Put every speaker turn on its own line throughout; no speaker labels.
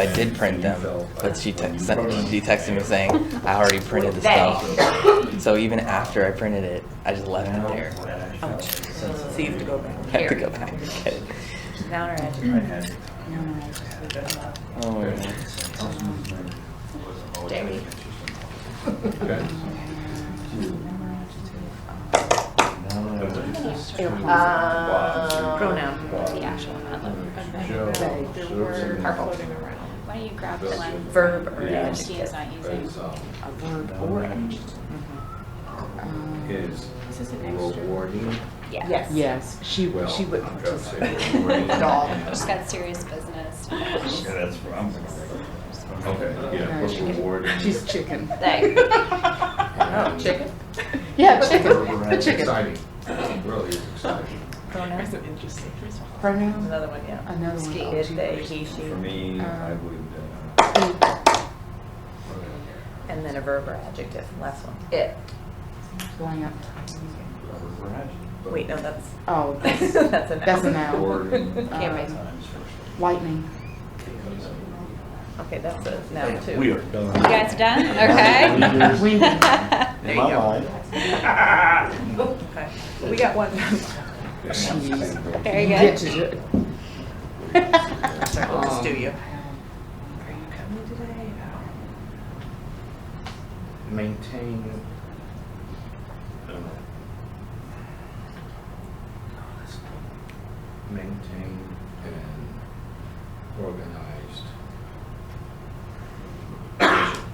I did print them, but she texted, she texted me saying, I already printed the stuff. So even after I printed it, I just left it there.
So you have to go back.
I have to go back and get it.
Now or edge?
Oh, man.
Jamie.
Uh,
Pronoun.
The actual
Joe.
Purple.
Why don't you grab the one
Verb or
that
adjective.
she is not using?
A verb or adjective.
Is
This is an extra.
rewarding.
Yeah.
Yes. Yes, she,
Well,
she would
I've got to say
participate
rewarding.
at all.
She's got serious business. to finish.
Yeah, that's where I'm gonna.
Okay, yeah, what's
Chicken.
rewarding?
She's chicken.
Like,
Oh,
chicken? Yeah, chicken, the chicken.
Exciting, really is exciting.
Pronoun. Pronoun,
Another one, yeah.
another one.
She,
Oh,
it,
gee.
they, he, she,
For me, I
Um,
would, uh,
and then a verb or adjective, last one.
It.
Plant.
Wait, no, that's,
Oh, that's,
that's a noun.
that's a noun.
Rewarding.
Um,
make
Lightning.
Okay, that's a noun too.
we are done.
You guys done? Okay.
Wind.
In my mind.
Okay, we got one.
Jeez.
Very
You
good.
get to do it.
Sorry, we'll just do
Um,
you.
Maintain. I don't know. Maintain and organized.
Oh,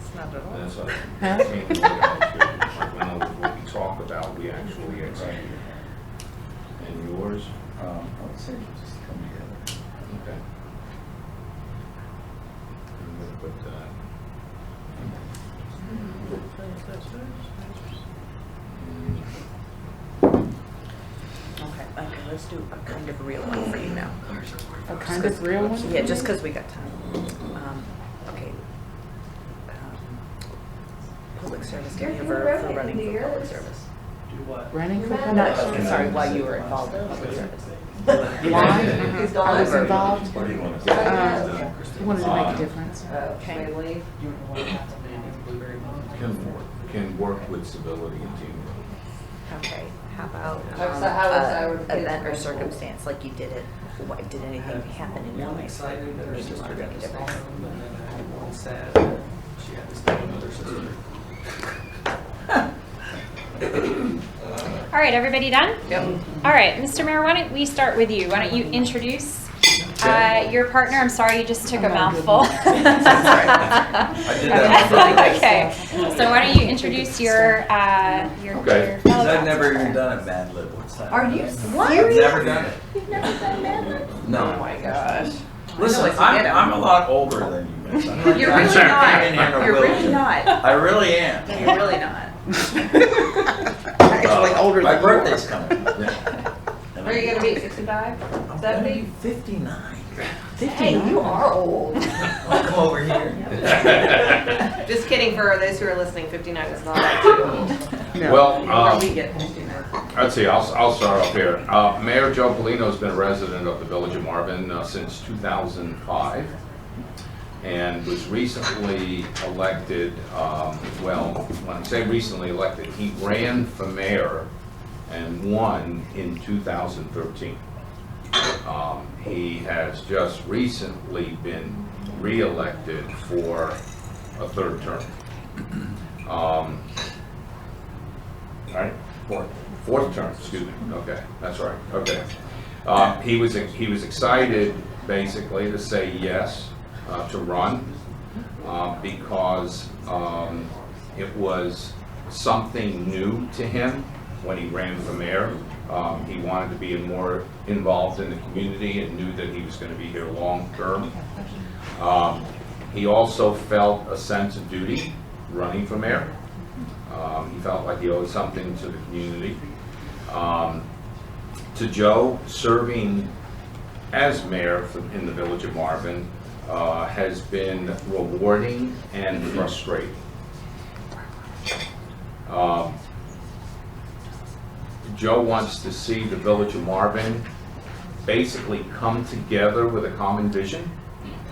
It's not at all.
That's a, maintain and organized. Like, when I- What we talk about, we actually execute. And yours?
Um, I would say just come together.
Okay. I'm gonna put, uh, mm,
Okay, okay, let's do a kind of real one for you now.
A kind of real one?
Yeah, just because we got time. Um, Okay. Um, Public service, give me a verb for running for public service.
Running for
Not,
public.
sorry, why you were involved in public service.
Why? I was involved.
What do you want to
Uh,
say?
Wanted to make a difference.
Okay.
uh, Can work, can work with civility and teamwork.
Okay, how about,
How was
um,
that- how was that
uh,
with kids
event
in
or
school?
circumstance, like you did it, what, did anything happen in your life? that Made you want to make a difference.
All right, everybody done? Yep. All right, Mr. Mayor, why don't we start with you? Why don't you introduce uh, your partner? I'm sorry, you just took
Oh,
a
I'm not good
mouthful.
with names.
I did that on purpose.
Okay, so why don't you introduce your, uh, your your
Okay.
fellow
Because I've never even
councilor?
done a Mad Lib. What's that?
Are you
I've
serious?
never done it.
You've never done that?
No.
Oh my gosh.
Listen,
it's a
I'm,
ghetto.
I'm a lot older than you. miss. I'm like-
You're
I'm
really
sorry,
not.
I'm in here to
You're
will
really
you.
not.
I really am.
You're really not.
Actually
Uh,
older
My
than you are.
birthday's coming.
Where are you gonna be, sixty-five?
I'm gonna
Seventy?
be Fifty-nine.
Hey, you are old.
I'll come over here.
Just kidding for those who are listening, fifty-nine is not that too old.
No.
Well,
Or
um,
we get fifty-nine.
I'd say I'll, I'll start off here. Uh, Mayor Joe Polino's been a resident of the Village of Marvin uh, since 2005 and was recently elected, um, well, when I say recently elected, he ran for mayor and won in 2013. Um, He has just recently been re-elected for a third term. Um, Right? Fourth. Fourth term, excuse me, okay, that's right, okay. Uh, He was, he was excited, basically, to say yes, uh, to run, uh, because um, it was something new to him when he ran for mayor. Um, He wanted to be more involved in the community and knew that he was going to be here long-term. He also felt a sense of duty running for mayor. Um, He felt like he owed something to the community. Um, To Joe, serving as mayor for- in the village of Marvin uh, has been rewarding and frustrating. Um, Joe wants to see the village of Marvin basically come together with a common vision